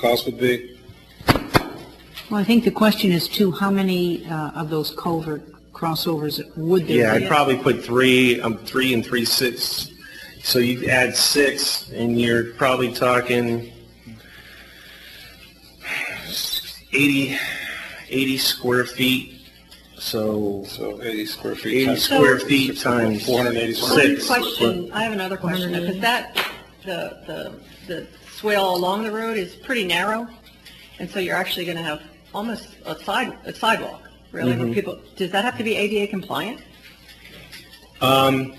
cost would be? Well, I think the question is too, how many uh, of those culvert crossovers would Yeah, there I'd be? probably put three, um, three and three six. So you add six and you're probably talking 80, 80 square feet. So So 80 square feet. 80 times- square feet times 480 square feet. six. Question, I have another question, because that, the, the, the swale along the road is pretty narrow, and so you're actually gonna have almost a side, a sidewalk, really, Mm-hmm. where people, does that have to be ADA compliant? Um,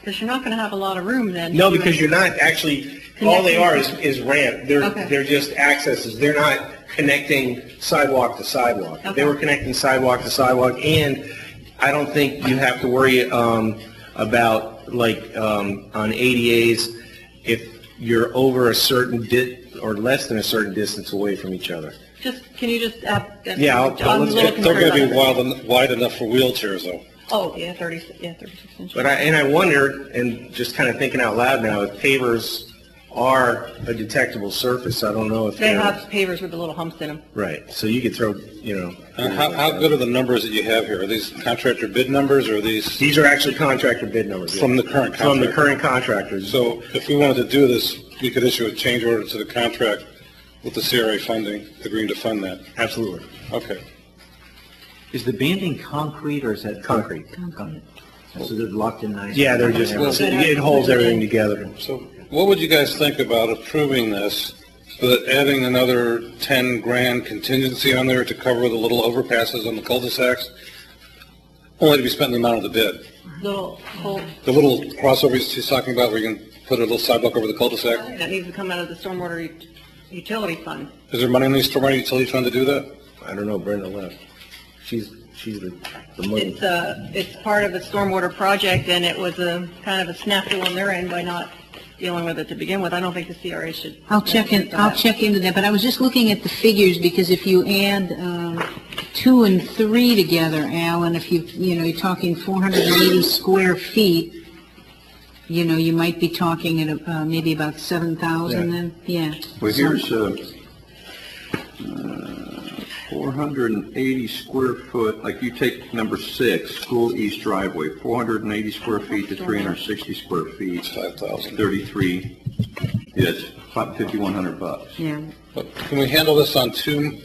Because you're not gonna have a lot of room then. No, because you're not actually, all they are is, is ramp. They're, Okay. they're just accesses. They're not connecting sidewalk to sidewalk. If They were Okay. connecting sidewalk to sidewalk, and I don't think you have to worry, um, about, like, um, on ADAs, if you're over a certain di, or less than a certain distance away from each other. Just, can you just, uh, that's- Yeah, I'll- I'll- I'm a let's little get- They're concerned going to about be that. wide, en- wide enough for wheelchairs though. Oh, yeah, thirty, yeah, thirty-six inches. But I, and I wonder, and just kind of thinking out loud now, if pavers are a detectable surface, I don't know if They they're. have pavers with the little humps in them. Right, so you could throw, you know. Uh, How, how good are the numbers that you have here? Are these contractor bid numbers or are these? These are actually contractor bid numbers. yeah. From the current From the contractor. current contractors. So if we wanted to do this, we could issue a change order to the contract with the CRA funding, agreeing to fund that. Absolutely. Okay. Is the banding concrete or is that? Concrete. Concrete. So they're locked in nice. Yeah, they're just, it holds everything together. So what would you guys think about approving this, but adding another 10 grand contingency on there to cover the little overpasses on the cul-de-sacs? Only to be spent in the amount of the bid. Little hole The little crossovers he's talking about where you can put a little sidewalk over the cul-de-sac? that needs to come out of the stormwater ut- utility fund. Is there money in the stormwater utility fund to do that? I don't know, Brenda left. She's, she's the, the money. It's, uh, it's part of the stormwater project, and it was a, kind of a snafu on their end by not dealing with it to begin with. I don't think the CRA should. I'll check in, I'll check into that, but I was just looking at the figures, because if you add um, two and three together, Alan, if you, you know, you're talking 480 square feet, you know, you might be talking at uh, maybe about 7,000 then, yeah. Well, here's uh, uh, 480 square foot, like you take number six, school east driveway, 480 square feet to 360 square feet. 5,000. 33, yes, 5,100 bucks. Yeah. But Can we handle this on two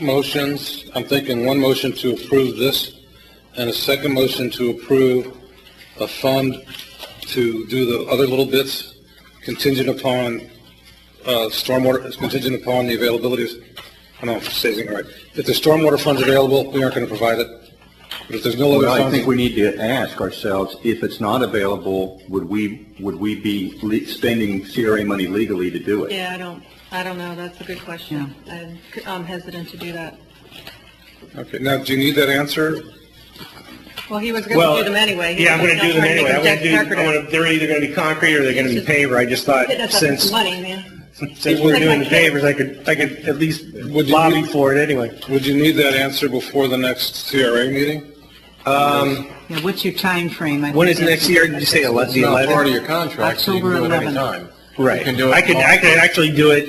motions? I'm thinking one motion to approve this, and a second motion to approve a fund to do the other little bits contingent upon, uh, stormwater, it's contingent upon the availability of, I don't know if I'm saying it right. If the stormwater fund's available, we aren't gonna provide it. But if there's no other Well, I funds, think we need to ask ourselves, if it's not available, would we, would we be le- spending CRA money legally to do it? Yeah, I don't, I don't know. That's a good question. I'm- I'm hesitant to do that. okay, now, do you need that answer? Well, he was going Well, to do them anyway. He Yeah, I'm was gonna not do them trying to anyway. make I'm them gonna do, I'm decorative. gonna, they're either gonna be concrete or they're gonna be paver. I just thought, Hitting us up with since, money, man. since we're doing the pavers, I could, I could at least Would you- lobby for it anyway. Would you need that answer before the next CRA meeting? Yeah, what's your time frame? I When think is that's- next year? Did you say the 11th? contract, so you can October do it 11th. anytime. Right. You can do it I could, all- I could actually do it,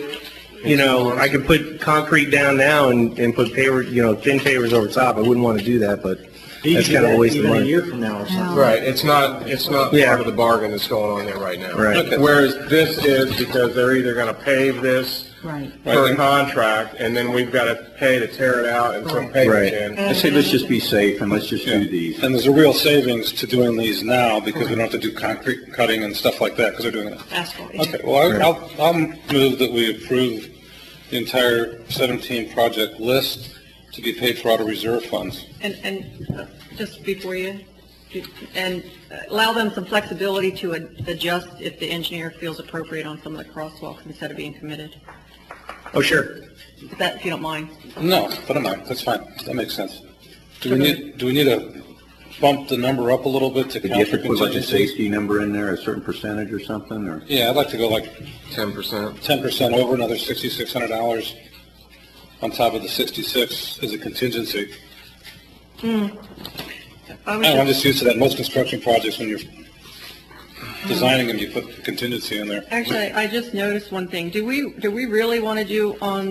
you know, I could put concrete down now and, and put paver, you know, thin pavers over top. I wouldn't want to do that, but that's kind of a waste of Even a money. year from now or something. Right, it's not, it's not Yeah. part of the bargain that's going on there right now. Right. Okay. Whereas this is because they're either going to pave this Right. per contract, and then we've got to pay to tear it out and put Right. pavement in. I say, let's just be safe and let's just do these. And there's a real savings to doing these now because we don't have to do concrete cutting and stuff like that because they're doing it. Asphalt, yeah. Okay, well, I- I'll, I'll move that we approve the entire 17 project list to be paid for out of reserve funds. And, and uh, just before you, and uh, allow them some flexibility to ad- adjust if the engineer feels appropriate on some of the crosswalks instead of being committed, Oh, sure. if that, if you don't mind. No, but I'm not, that's fine, that makes sense. Do we need, do we need to bump the number up a little bit to Could count you for have to put like a contingencies? safety number in there, a certain percentage or something, or? Yeah, I'd like to go like Ten percent. 10% over, another $6,600 on top of the 66 as a contingency. I was I don't know, I'm just- just used to that, most construction projects, when you're designing them, you put contingency in there. Actually, I just noticed one thing. Do we, do we really want to do on